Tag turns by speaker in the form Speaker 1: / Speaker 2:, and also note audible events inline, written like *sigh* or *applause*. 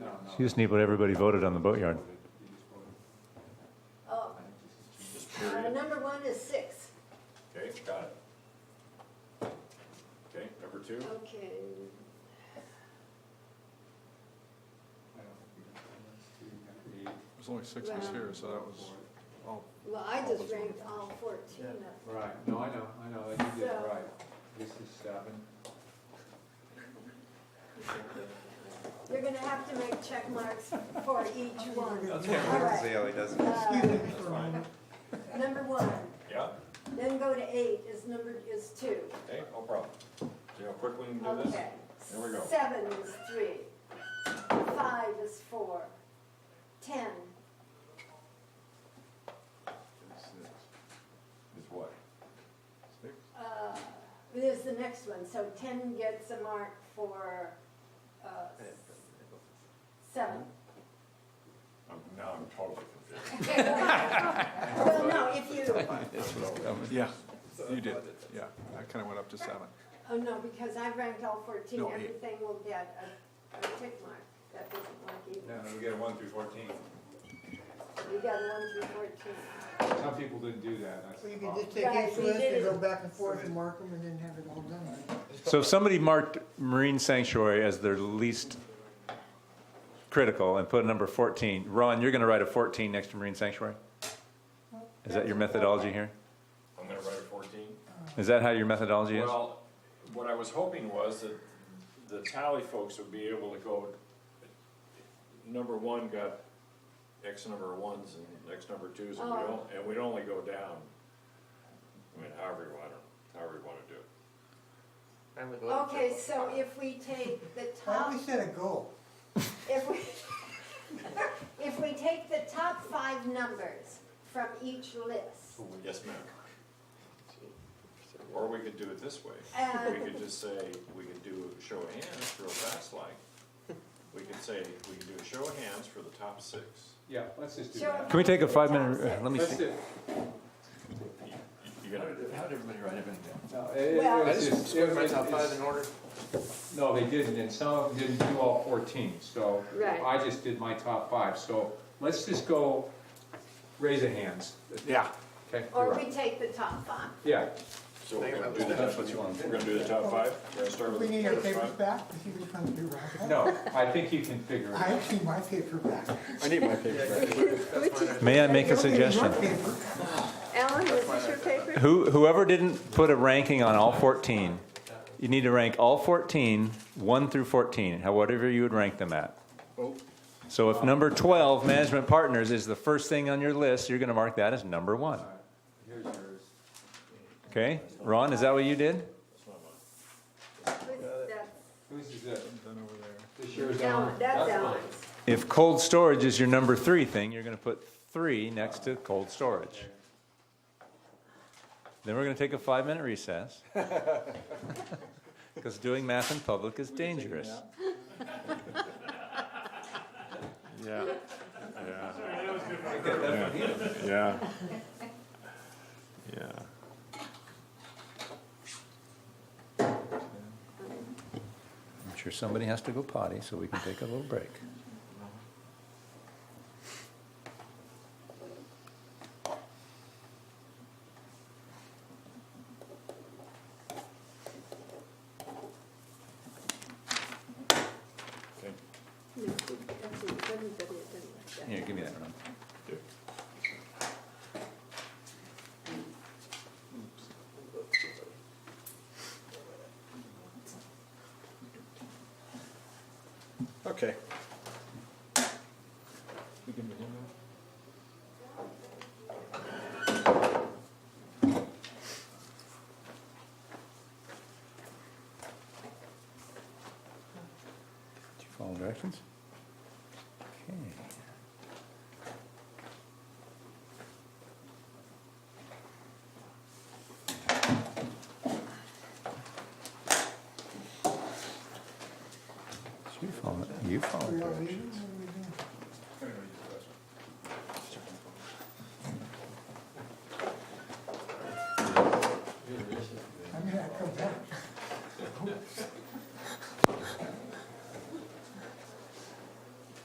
Speaker 1: You just need what everybody voted on the boatyard.
Speaker 2: Oh, uh, number one is six.
Speaker 3: Okay, got it. Okay, number two,
Speaker 2: Okay,
Speaker 4: There's only six of us here, so that was all.
Speaker 2: well, I just ranked all fourteen of them.
Speaker 5: Right, no, I know, I know, you did it
Speaker 2: So-
Speaker 5: right. This is seven.
Speaker 2: You're gonna have to make check marks
Speaker 6: *laughs*
Speaker 2: for each one.
Speaker 6: That's
Speaker 2: All
Speaker 6: what
Speaker 2: right.
Speaker 6: Zaley does.
Speaker 2: Uh, Number one,
Speaker 3: yeah,
Speaker 2: then go to eight is number, is two.
Speaker 3: okay, no problem. See how quickly we can do this?
Speaker 2: Okay.
Speaker 3: There we go.
Speaker 2: Seven is three, five is four, ten,
Speaker 3: It's what?
Speaker 4: Six?
Speaker 2: uh, there's the next one, so ten gets a mark for, uh, seven.
Speaker 3: I'm, now I'm totally confused.
Speaker 2: *laughs* Well, no, if you,
Speaker 4: Yeah, you did, yeah. I kind of went up to seven.
Speaker 2: oh, no, because I've ranked all fourteen,
Speaker 4: No, eight.
Speaker 2: everything will get a, a tick mark. That doesn't work either.
Speaker 3: And then we get one through fourteen.
Speaker 2: You got one through fourteen.
Speaker 5: Some people didn't do that, that's the
Speaker 6: You can
Speaker 5: problem.
Speaker 6: just take
Speaker 2: Right,
Speaker 6: each
Speaker 2: we
Speaker 6: list
Speaker 2: did
Speaker 6: and
Speaker 2: it.
Speaker 6: go back and forth and mark them and then have it all done.
Speaker 1: So if somebody marked marine sanctuary as their least critical and put a number 14, Ron, you're going to write a 14 next to marine sanctuary? Is that your methodology here?
Speaker 3: I'm gonna write a fourteen.
Speaker 1: Is that how your methodology is?
Speaker 3: Well, what I was hoping was that the tally folks would be able to go, number one got X number of ones and X number of twos, and we
Speaker 2: Oh.
Speaker 3: don't, and we'd only go down. I mean, however you want, to- however you wanna do it.
Speaker 2: Okay, so if we take the
Speaker 6: *laughs* Why
Speaker 2: top,
Speaker 6: don't we set a goal?
Speaker 2: if we, *laughs* if we take the top five numbers from each list,
Speaker 3: Yes, ma'am. Or we could do it this way.
Speaker 2: Uh.
Speaker 3: We could just say, we could do a show of hands real fast like. We could say, we can do a show of hands for the top six.
Speaker 5: Yeah, let's just do
Speaker 2: Sure.
Speaker 5: that.
Speaker 1: Can we take a five minute, let me
Speaker 5: Let's
Speaker 1: see.
Speaker 5: do,
Speaker 3: You- You gotta,
Speaker 7: How did everybody write everything down?
Speaker 5: no, it- it
Speaker 2: Well-
Speaker 5: was just, it was, it's-
Speaker 7: order?
Speaker 5: no, they didn't, and some of them didn't do all fourteen, so.
Speaker 2: Right.
Speaker 5: I just did my top five, so let's just go, raise of hands.
Speaker 4: Yeah.
Speaker 5: Okay, you're
Speaker 2: or we
Speaker 5: right.
Speaker 2: take the top five.
Speaker 5: yeah,
Speaker 3: so we're gonna
Speaker 7: about
Speaker 3: do the,
Speaker 7: the-
Speaker 3: top- we're gonna do the top five, we're gonna start
Speaker 6: We
Speaker 3: with the
Speaker 6: need our
Speaker 3: first
Speaker 6: papers
Speaker 3: five.
Speaker 6: back, to see which ones we wrote.
Speaker 5: no, I think you can figure it
Speaker 6: I
Speaker 5: out.
Speaker 6: actually my paper back.
Speaker 7: I need my paper.
Speaker 1: May I make a
Speaker 6: Don't give me your
Speaker 1: suggestion?
Speaker 6: paper.
Speaker 2: Alan, was this your paper?
Speaker 1: Who, whoever didn't put a ranking on all 14, you need to rank all 14, 1 through 14, however you would rank them at. So if number 12, management partners, is the first thing on your list, you're going to mark that as number one.
Speaker 5: Here's yours.
Speaker 1: Okay? Ron, is that what you did?
Speaker 5: Whose is it?
Speaker 4: Then over there.
Speaker 5: This yours,
Speaker 2: Alan,
Speaker 5: Alan? mine.
Speaker 2: that's Alan's.
Speaker 1: If cold storage is your number three thing, you're going to put three next to cold storage. Then we're going to take a five minute recess. *laughs* Because doing math in public is dangerous.
Speaker 4: *laughs* Yeah, yeah. Yeah. Yeah.
Speaker 1: I'm sure somebody has to go potty, so we can take a little break.
Speaker 3: Okay.
Speaker 2: No, that's it. Everybody had done like that.
Speaker 1: Here, give me that, Ron.
Speaker 7: Okay.
Speaker 1: Did you follow directions? Okay. So You follow, you follow
Speaker 6: We all
Speaker 1: directions.
Speaker 6: leaving?